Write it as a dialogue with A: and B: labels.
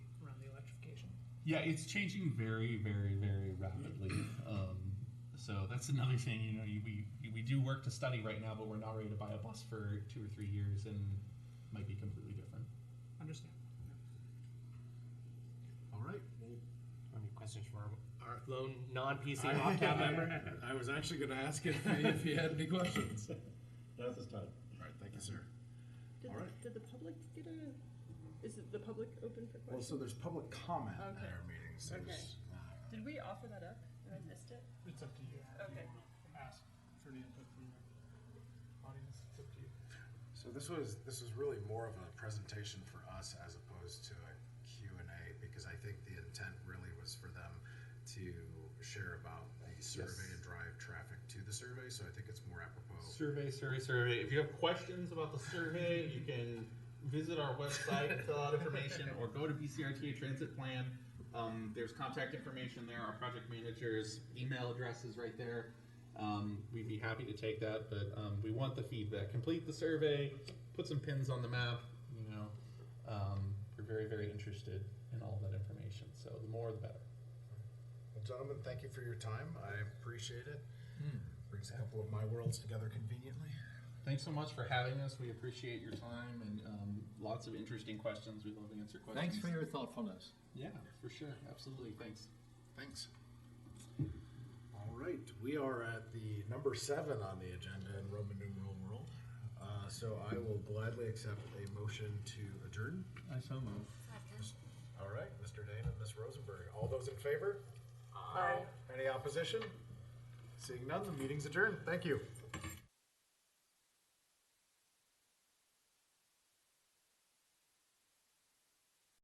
A: Yeah, it's changing very, very, very rapidly. Um, so that's another thing. You know, you, we we do work to study right now, but we're not ready to buy a bus for two or three years, and it might be completely different.
B: Understand.
C: All right.
D: Any questions for our-
C: All right.
D: our lone non-PC
C: I-
D: OCAP
C: I-
D: member?
C: I was actually going to ask if, if you had any questions. All
E: Not this time.
C: right. Thank you, sir.
F: Did,
C: All
F: the-
C: right.
F: did the public get a, is it the public open for
C: Well,
F: questions?
C: so there's public comment at
F: Okay.
C: our meetings.
F: Okay.
C: There's- uh,
F: Did we offer that up and I missed it?
B: It's up to you.
F: Okay.
B: Ask for the input from the audience. It's up to you.
C: So this was, this was really more of a presentation for us as opposed to a Q and A, because I think the intent really was for them to share about the survey and drive traffic to the survey, so I think it's more apropos.
A: Survey, survey, survey. If you have questions about the survey, you can visit our website, fill out information, or go to BCRTA Transit Plan. Um, there's contact information there, our project manager's email address is right there. Um, we'd be happy to take that, but um, we want the feedback. Complete the survey, put some pins on the map, you know. Um, we're very, very interested in all that information, so the more the better.
C: Well, gentlemen, thank you for your time. I appreciate it. Hmm. Brings a couple of my worlds together conveniently.
A: Thanks so much for having us. We appreciate your time and um, lots of interesting questions. We love to answer questions.
G: Thanks for your thoughtfulness.
A: Yeah, for sure. Absolutely. Thanks.
C: Thanks. All right, we are at the number seven on the agenda in Roman numeral world. Uh, so I will gladly accept a motion to adjourn.
G: I so move.
C: All right, Mr. Dane and Ms. Rosenberg. All those in favor? Aye. Any opposition? Seeing none, the meeting's adjourned. Thank you.